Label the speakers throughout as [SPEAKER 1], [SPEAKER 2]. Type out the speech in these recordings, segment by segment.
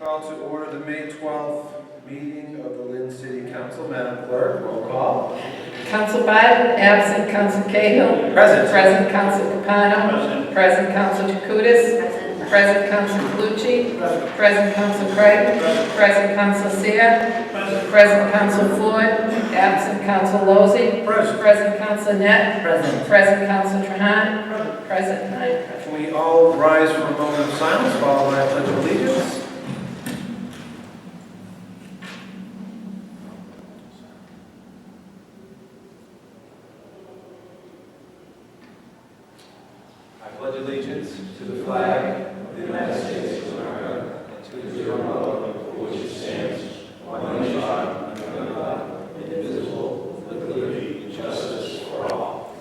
[SPEAKER 1] Call to order the May 12th meeting of the Lynn City Council. Madam Clerk, roll call.
[SPEAKER 2] Council Biden, absent Council Cahill.
[SPEAKER 1] Present.
[SPEAKER 2] Present Council Capano. Present Council Jacutis. Present Council Calucci. Present Council Creighton. Present Council Seer. Present Council Floyd. Absent Council Lozey. Present Council Net. Present. Present Council Trahan. Present nine present.
[SPEAKER 1] Can we all rise for a moment of silence followed by a pledge of allegiance? I pledge allegiance to the flag of the United States of America and to the republic for which it stands, one nation, under God, indivisible, with liberty and justice for all.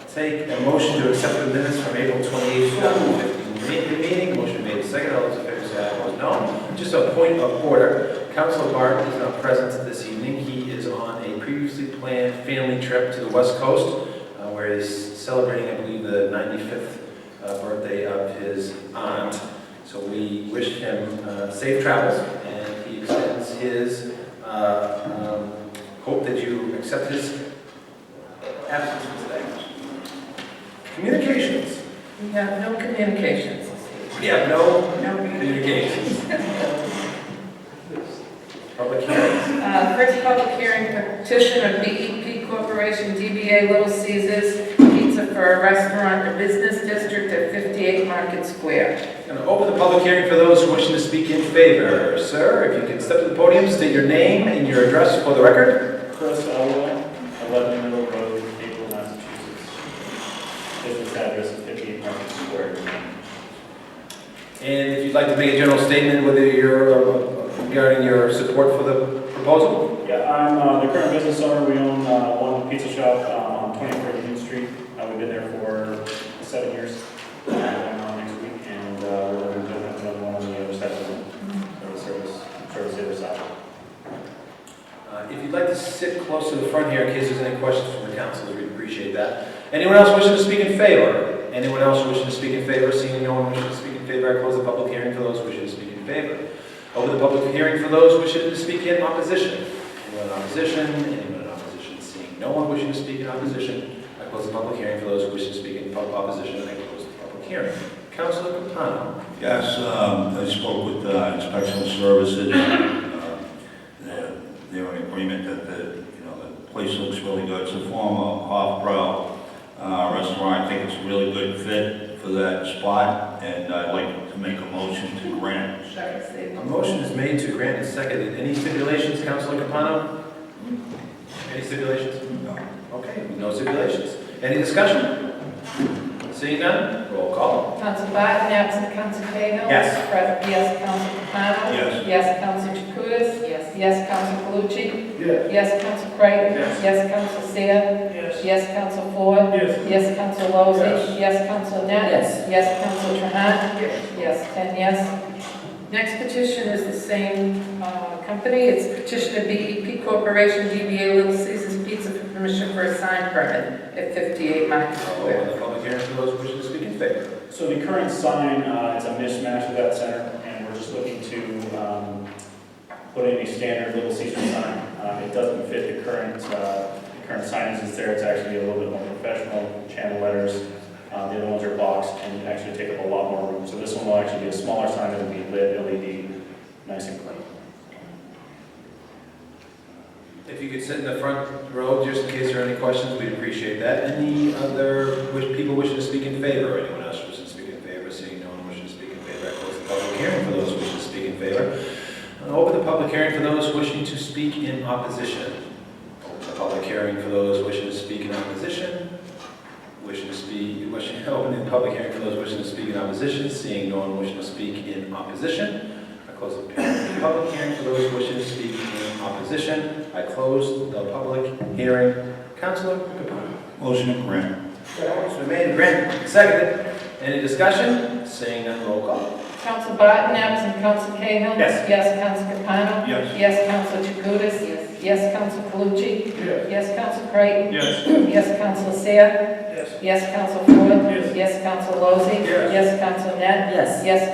[SPEAKER 1] I'll take a motion to accept the minutes from April 28, 2015 Me- meeting. Motion made, second. All those in favor say aye. Opposed, no. Just a point of order. Councilor Barton is not present this evening. He is on a previously planned family trip to the West Coast uh, where he's celebrating, I believe, the 95th uh, birthday of his aunt. So we wish him uh, safe travels, and he extends his uh, um, hope that you accept his absence from today. Communications.
[SPEAKER 2] We have no communications.
[SPEAKER 1] We have no
[SPEAKER 2] No
[SPEAKER 1] communications. Public hearings.
[SPEAKER 2] Uh, First public hearing petition of BEP Corporation DBA Little Caesar's Pizza for a restaurant, in the business district at 58 Market Square.
[SPEAKER 1] Going to open the public hearing for those wishing to speak in favor. Sir, if you can step to the podium, state your name and your address for the record.
[SPEAKER 3] Chris Elway, 11 Middle Road, Maple, Massachusetts. Business address is 58 Market Square.
[SPEAKER 1] And if you'd like to make a general statement whether you're uh, regarding your support for the proposal?
[SPEAKER 3] Yeah, I'm uh, the current business owner. We own uh, one pizza shop um, on 24 Union Street. Uh, We've been there for seven years. Uh, I'm on next week, and uh, we're going to have another one on the other side of the service, service the other side.
[SPEAKER 1] Uh, If you'd like to sit close to the front here in case there's any questions from the council, we'd appreciate that. Anyone else wishing to speak in favor? Anyone else wishing to speak in favor? Seeing no one wishing to speak in favor, I close the public hearing for those wishing to speak in favor. Open the public hearing for those wishing to speak in opposition. Anyone in opposition? Anyone in opposition? Seeing no one wishing to speak in opposition, I close the public hearing for those wishing to speak in pub- opposition, I close the public hearing. Councilor Capano?
[SPEAKER 4] Yes, um, I spoke with uh, Inspection Services. uh, They're they're in agreement that the, you know, the place looks really good. It's a former off-brow uh, restaurant. I think it's a really good fit for that spot, and I'd like to make a motion to grant.
[SPEAKER 1] A motion is made to grant and seconded. Any stipulations, Councilor Capano? Any stipulations?
[SPEAKER 4] No.
[SPEAKER 1] Okay, no stipulations. Any discussion? Seeing none, roll call.
[SPEAKER 2] Council Biden, absent Council Cahill.
[SPEAKER 1] Yes.
[SPEAKER 2] Present, yes, Council Capano.
[SPEAKER 4] Yes.
[SPEAKER 2] Yes, Council Jacutis. Yes. Yes, Council Calucci.
[SPEAKER 1] Yes.
[SPEAKER 2] Yes, Council Creighton.
[SPEAKER 1] Yes.
[SPEAKER 2] Yes, Council Seer.
[SPEAKER 3] Yes.
[SPEAKER 2] Yes, Council Floyd.
[SPEAKER 3] Yes.
[SPEAKER 2] Yes, Council Lozey.
[SPEAKER 4] Yes.
[SPEAKER 2] Yes, Council Net. Yes. Yes, Council Trahan. Yes, 10 yes. Next petition is the same uh, company. It's petition of BEP Corporation DBA Little Caesar's Pizza for permission for a sign permit at 58 Market
[SPEAKER 1] I'll
[SPEAKER 2] Square.
[SPEAKER 1] open the public hearing for those wishing to speak in favor.
[SPEAKER 3] So the current sign, uh, it's a mismatch of that center, and we're just looking to um, put in a standard Little Caesar sign. Um, It doesn't fit the current, uh, the current signage that's there, it's actually a little bit more professional, channel letters. Uh, The other ones are boxed and actually take up a lot more room. So this one will actually be a smaller sign that will be lit LED, nice and clean.
[SPEAKER 1] If you could sit in the front row, just in case there are any questions, we'd appreciate that. Any other wish- people wishing to speak in favor? Anyone else wishing to speak in favor? Seeing no one wishing to speak in favor, I close the public hearing for those wishing to speak in favor. And open the public hearing for those wishing to speak in opposition. Open the public hearing for those wishing to speak in opposition. Wishing to speak, wishing, open the public hearing for those wishing to speak in opposition. Seeing no one wishing to speak in opposition, I close the public hearing for those wishing to speak in opposition. I close the public hearing. Counselor Capano.
[SPEAKER 4] Motion to grant.
[SPEAKER 1] Motion made and granted, seconded. Any discussion? Seeing none, roll call.
[SPEAKER 2] Council Barton, absent Council Cahill.
[SPEAKER 1] Yes.
[SPEAKER 2] Yes, Council Capano.
[SPEAKER 4] Yes.
[SPEAKER 2] Yes, Council Jacutis. Yes. Yes, Council Calucci. Yes, Council Creighton.
[SPEAKER 3] Yes.
[SPEAKER 2] Yes, Council Seer.
[SPEAKER 1] Yes.
[SPEAKER 2] Yes, Council Floyd.
[SPEAKER 3] Yes.
[SPEAKER 2] Yes, Council Lozey.
[SPEAKER 1] Yes.
[SPEAKER 2] Yes, Council Net.
[SPEAKER 5] Yes.
[SPEAKER 2] Yes,